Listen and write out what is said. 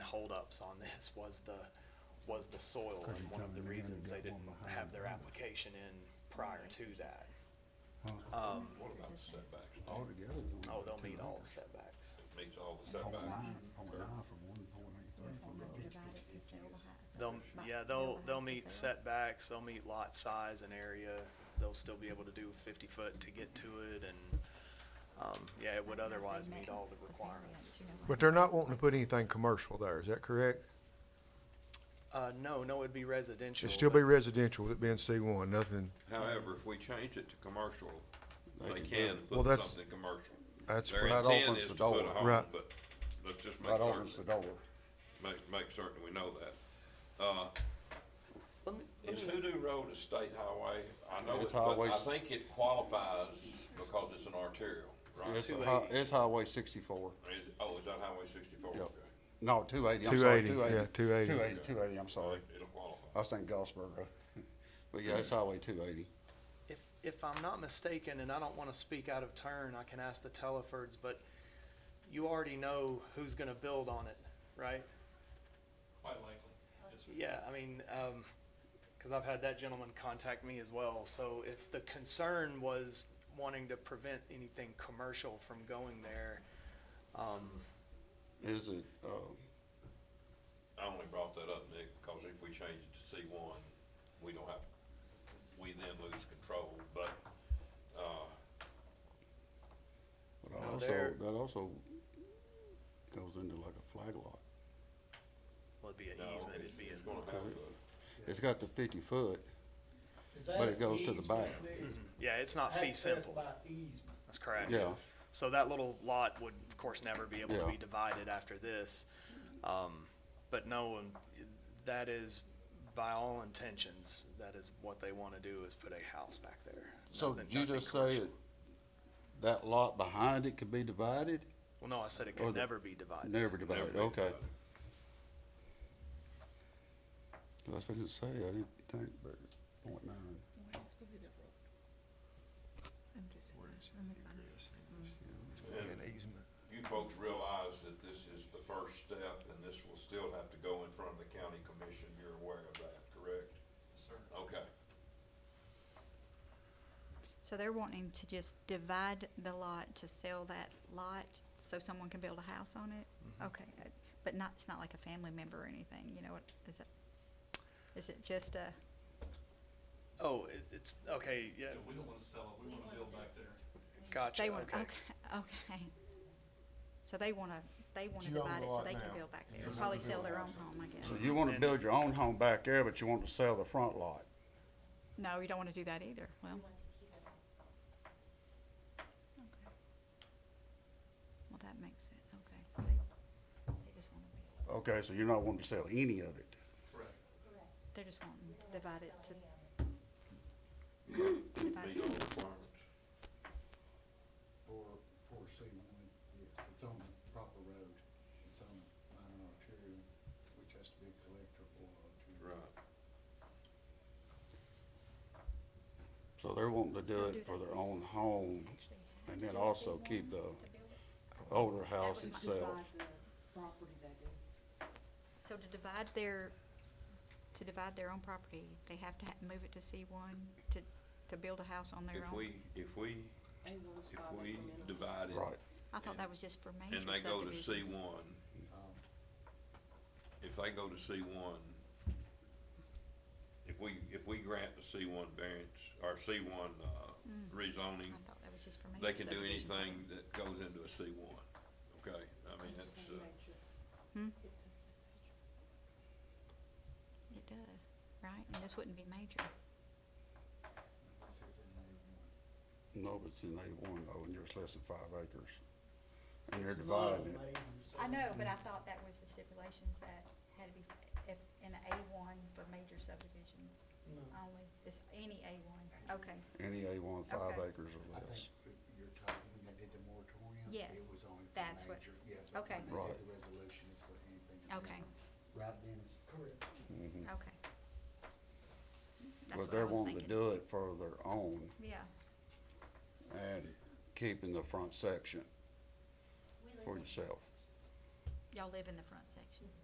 holdups on this was the, was the soil. Could you And one of come the in there reasons and they get didn't one behind have their the other? application in prior to that. Huh? Um, What about the setbacks? Uh, Altogether. it's oh, they'll over meet all 200. the setbacks. It meets all the On setbacks. mine, on mine from one point eight three Well, from let's the- divide it to sell the house. They'll, Buy- yeah, build they'll, the they'll meet house to sell. setbacks, they'll meet lot size and area, they'll still be able to do fifty foot to get to it and, um, yeah, it would I don't know if they otherwise met meet them, all the but they met, requirements. you know, But like- they're not wanting to put anything commercial there, is that correct? Uh, no, no, it'd be residential. It'd still be but- residential with it being C one, nothing, However, if we change it to commercial, they can Well, put that's- something commercial. that's, Their That intent opens is the to put a door. home, Right. but let's just make That opens the certain, door. make, make certain we know that. Uh, Let me, let is me- Hoodoo Road a state highway? I know it, It's but I highways. think it qualifies because it's an arterial, right? It's, Is, two hi- eighty. it's Highway sixty-four. oh, is that Highway sixty-four? Yep. Okay. No, two eighty, I'm Two sorry, eighty, two eighty. yeah, two eighty. Two eighty, two eighty, I'm So sorry. it- it'll I qualify. was thinking Gosper Road. But yeah, it's Highway two eighty. if, if I'm not mistaken, and I don't wanna speak out of turn, I can ask the Telefords, but you already know who's gonna build on it, right? Quite likely, yes, sir. Yeah, I mean, um, cause I've had that gentleman contact me as well, so if the concern was wanting to prevent anything commercial from going there, um, Is it, uh, I only brought that up, Nick, because if we change it to C one, we don't have, we then lose control, but, uh, but No, also, there- that also goes into like a flag lot. would be an no, easement, it's, it'd be it's a, gonna have to. It's got the fifty foot, Is But it that goes to the easement? back. Is yeah, it's not fee access simple, by easement? that's correct. yeah. So that little lot would, of course, never be able to Yeah. be divided after this. Um, but no, um, that is by all intentions, that is what they wanna do is put a house back there. So Nothing- did you nothing just say commercial. it- that lot behind it could be divided? Well, no, I said it or could the- never be divided. Never Never divided, be okay. divided. That's what I was gonna say, I didn't think, but it's point nine. I'm just- I'm gonna- I'm gonna- And an easement. you folks realize that this is the first step, and this will still have to go in front of the county commission, you're aware of that, correct? Yes, sir. Okay, So they're wanting to just divide the lot to sell that lot so someone can build a house on it? Mm-hmm. Okay, uh, but not, it's not like a family member or anything, you know, what is it, is it just a, Oh, it, it's, okay, yeah, Yeah, we don't wanna sell it, we wanna build back there. gotcha, they want, okay. okay, okay. So they wanna, they wanna You own divide the it so lot they can now. build back there, You're probably gonna sell build a their own house home, I guess. So you wanna And- build your own home back there, but you want to sell the front lot? No, you don't wanna do that either, well. Okay. Well, that makes it, okay, so they, they just wanna be. Okay, so you're not wanting to sell any of it? Correct. They're just wanting to divide it to, meet all requirements. For, for Seaman, yes, it's on the proper road, it's on minor arterial, which has to be a collector or arterial. Right. So they're wanting to do So it do for they- their own home actually. and then also keep the older house itself. So to divide their, to divide their own property, they have to ha- move it to C one to, to build a house on their If own? we, if we, if we divide it. Right, I thought that was just for major And they go to C subdivisions. one. If they go to C one, if we, if we grant the C one variance, or C one, Mm. uh, rezoning, I thought that was just for major they can do subdivisions. anything that goes into a C one, okay? I mean, that's, uh, It does, right? And this wouldn't be major. This is in A one. no, but it's in A one though, and there's less than five acres. And they're It's not dividing it. major I know, but I thought that was the stipulations that had to be, if, in A one for major subdivisions subdivision. No, only, it's any A one, okay. Any A one, five Okay. acres or I less. think you're talking, when they did the moratorium, Yes, it was only for that's what- major, yeah, but okay. when they Right. did the resolution, it's for anything. Okay. Right then, it's correct. Mhm. Okay. That's But what they're I was wanting to thinking. do it for their own Yeah, and keeping the front section for yourself. y'all live in the front section.